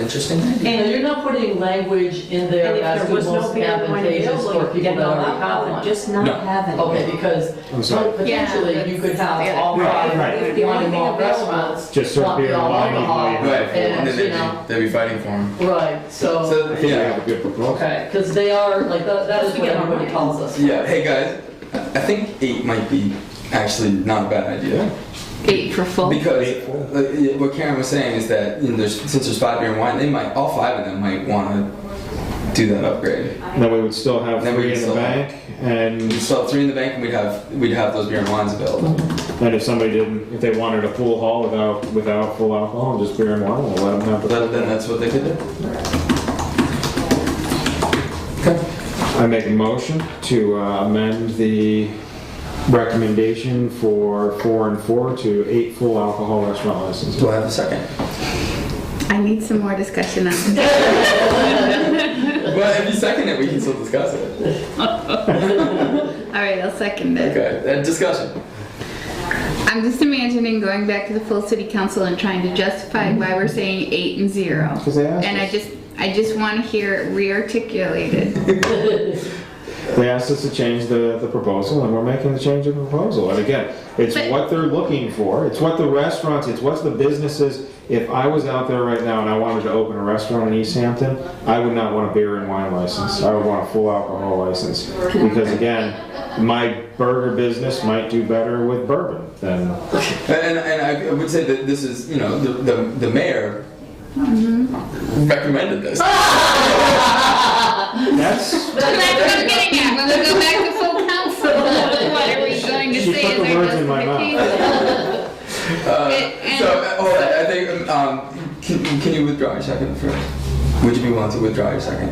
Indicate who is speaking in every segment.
Speaker 1: interesting idea.
Speaker 2: And you're not putting language in there
Speaker 3: And
Speaker 2: as
Speaker 3: if there
Speaker 2: to
Speaker 3: was no
Speaker 2: most advantageous for
Speaker 3: available,
Speaker 2: people
Speaker 3: then
Speaker 2: that already
Speaker 3: allow
Speaker 2: have
Speaker 3: one,
Speaker 2: one.
Speaker 3: just not
Speaker 1: No.
Speaker 3: have it.
Speaker 2: Okay, because
Speaker 4: I'm sorry.
Speaker 2: potentially you could have all
Speaker 4: Right,
Speaker 2: five,
Speaker 4: right.
Speaker 3: If the only
Speaker 2: wanting
Speaker 3: thing
Speaker 2: all
Speaker 3: available.
Speaker 2: restaurants.
Speaker 4: Just serve
Speaker 2: want the
Speaker 4: beer and
Speaker 2: all
Speaker 4: wine,
Speaker 2: alcohol,
Speaker 4: you know,
Speaker 5: Right, and then
Speaker 2: And, you
Speaker 5: they'd
Speaker 2: know,
Speaker 5: be, they'd be fighting for him.
Speaker 2: right, so,
Speaker 4: I think we
Speaker 5: Yeah,
Speaker 4: have a good proposal.
Speaker 2: okay, because they are, like, that that is
Speaker 3: Just
Speaker 2: what
Speaker 3: forget
Speaker 2: everybody
Speaker 3: online.
Speaker 2: calls us.
Speaker 5: yeah, hey guys, I I think eight might be actually not a bad idea.
Speaker 6: Eight for full.
Speaker 5: Because like, yeah, what Karen was saying is that you know, there's, since there's five beer and wine, they might all five of them might want to do that upgrade.
Speaker 4: Then we would still have
Speaker 5: Then we
Speaker 4: three
Speaker 5: can
Speaker 4: in the
Speaker 5: still-
Speaker 4: bank, and
Speaker 5: We'd sell three in the bank, and we'd have we'd have those beer and wines available.
Speaker 4: then if somebody didn't, if they wanted a full haul without, without full alcohol, just beer and wine, we'll let them have
Speaker 5: But
Speaker 4: the.
Speaker 5: then that's what they could do.
Speaker 4: I make a motion to uh, amend the recommendation for four and four to eight full alcohol restaurant licenses.
Speaker 5: Do I have a second?
Speaker 6: I need some more discussion on this.
Speaker 5: well, if you second it, we can still discuss it.
Speaker 6: All right, I'll second it.
Speaker 5: Okay, uh, discussion.
Speaker 6: I'm just imagining going back to the full city council and trying to justify why we're saying eight and zero.
Speaker 4: 'Cause they asked
Speaker 6: And I
Speaker 4: us.
Speaker 6: just, I just want to hear it re-articulated.
Speaker 4: They asked us to change the, the proposal, and we're making the change of the proposal. And again, it's
Speaker 6: But-
Speaker 4: what they're looking for, it's what the restaurants, it's what the businesses. If I was out there right now and I wanted to open a restaurant in East Hampton, I would not want a beer and wine license. I would want a full alcohol license. Because again, my burger business might do better with bourbon than,
Speaker 5: And, and I I would say that this is, you know, the, the, the mayor recommended this.
Speaker 4: that's,
Speaker 6: That's what I'm getting at, when we go back to full council, what are we going to
Speaker 4: She
Speaker 6: say
Speaker 4: put
Speaker 6: is
Speaker 4: the
Speaker 6: our
Speaker 4: words in my mouth.
Speaker 6: justification?
Speaker 5: Uh,
Speaker 6: And-
Speaker 5: so, uh, hold on, I think, um, can, can you withdraw your second first? Would you be willing to withdraw your second?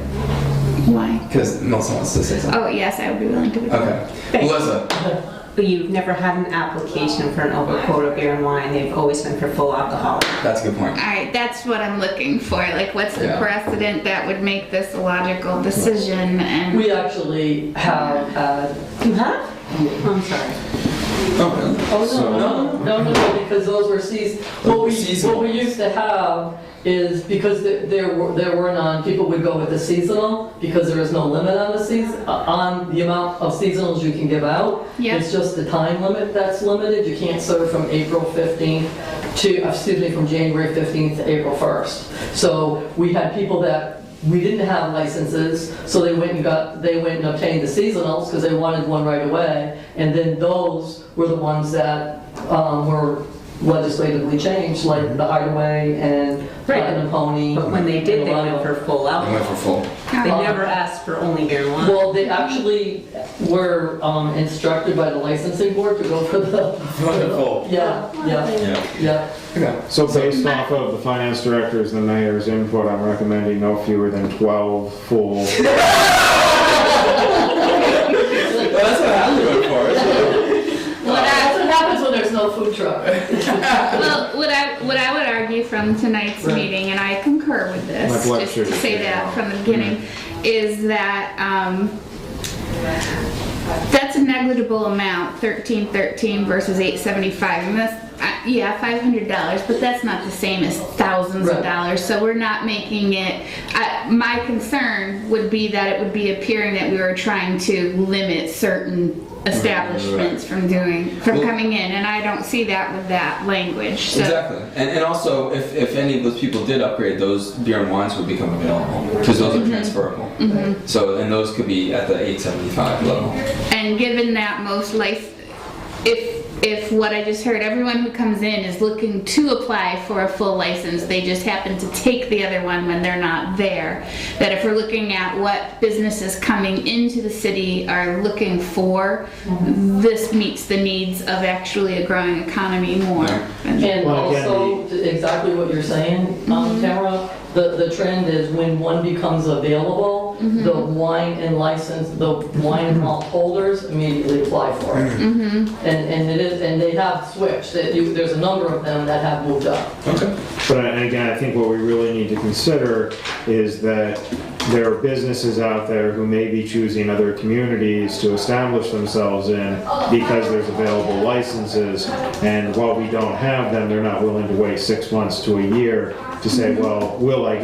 Speaker 6: Why?
Speaker 5: Because Melissa wants to say something.
Speaker 6: Oh, yes, I would be willing to withdraw.
Speaker 5: Okay. Melissa,
Speaker 3: But you've never had an application for an over quota beer and wine, they've always been for full alcohol.
Speaker 5: that's a good point.
Speaker 6: All right, that's what I'm looking for, like, what's the
Speaker 5: Yeah.
Speaker 6: precedent that would make this a logical decision and,
Speaker 2: We actually have, uh,
Speaker 3: You have? I'm sorry.
Speaker 5: Oh, really?
Speaker 2: Oh,
Speaker 4: So-
Speaker 2: no, no, no, no, no, because those were seas, what we,
Speaker 5: Seasonal.
Speaker 2: what we used to have is, because there- there were, there were none, people would go with the seasonal, because there is no limit on the season, on the amount of seasonals you can give out.
Speaker 6: Yeah.
Speaker 2: It's just the time limit that's limited, you can't serve from April 15th to, excuse me, from January 15th to April 1st. So we had people that, we didn't have licenses, so they went and got, they went and obtained the seasonals, because they wanted one right away, and then those were the ones that um, were legislatively changed, like the Hideaway and
Speaker 3: Right.
Speaker 2: Black and Pony.
Speaker 3: But when they did,
Speaker 2: and a
Speaker 3: they
Speaker 2: lot
Speaker 3: went
Speaker 2: of-
Speaker 3: for full
Speaker 5: I went
Speaker 3: alcohol.
Speaker 5: for full.
Speaker 3: They never asked for only beer and wine.
Speaker 2: Well, they actually were um, instructed by the licensing board to go for the,
Speaker 5: I went for full.
Speaker 2: yeah, yeah,
Speaker 5: Yeah.
Speaker 2: yeah.
Speaker 5: Okay.
Speaker 4: so based off of the finance director's and the mayor's input, I'm recommending no fewer than twelve full
Speaker 5: Well, that's what I have to vote for. so-
Speaker 2: Well, that's what happens when there's no food truck.
Speaker 6: Well, what I, what I would argue from tonight's
Speaker 2: Right.
Speaker 6: meeting, and I concur with this,
Speaker 4: My blood
Speaker 6: just
Speaker 4: sugar's
Speaker 6: to say
Speaker 4: getting low.
Speaker 6: that from the beginning, is that, um, that's a negligible amount, thirteen thirteen versus eight seventy-five, and that's, uh, yeah, five hundred dollars, but that's not the same as thousands of
Speaker 2: Right.
Speaker 6: dollars, so we're not making it, uh, my concern would be that it would be appearing that we were trying to limit certain establishments from doing, from
Speaker 5: Well-
Speaker 6: coming in, and I don't see that with that language, so.
Speaker 5: Exactly. And, and also, if, if any of those people did upgrade, those beer and wines would become available because those are transferable. So, and those could be at the 875 level.
Speaker 6: And given that most life, if, if what I just heard, everyone who comes in is looking to apply for a full license, they just happen to take the other one when they're not there, that if we're looking at what businesses coming into the city are looking for, this meets the needs of actually a growing economy more.
Speaker 2: And
Speaker 4: Well, again,
Speaker 2: also, exactly what you're saying, um, Tamara, the, the trend is when one becomes available, the wine and license, the wine and malt holders immediately apply for it. And, and it is, and they have switched, that you, there's a number of them that have moved up.
Speaker 5: Okay.
Speaker 4: But I- again, I think what we really need to consider is that there are businesses out there who may be choosing other communities to establish themselves in because there's available licenses, and while we don't have them, they're not willing to wait six months to a year to say, well, will I